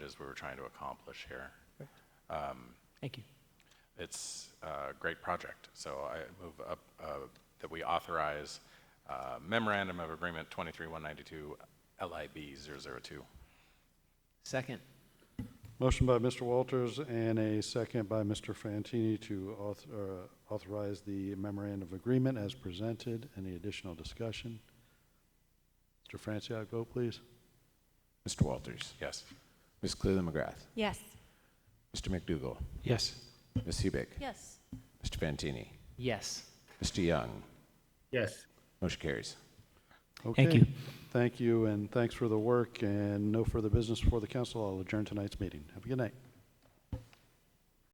is we were trying to accomplish here. Thank you. It's a great project, so I move up uh, that we authorize uh, memorandum of agreement 23192 LIB 002. Second. Motion by Mr. Walters and a second by Mr. Fantini to auth- uh, authorize the memorandum of agreement as presented. Any additional discussion? Mr. Franciac, vote please. Mr. Walters. Yes. Ms. Cleland McGrath. Yes. Mr. McDougall. Yes. Ms. Hubick. Yes. Mr. Fantini. Yes. Mr. Young. yes, Motion carries. Thank Okay. you. Thank you, and thanks for the work, and no further business for the council. I'll adjourn tonight's meeting. Have a good night.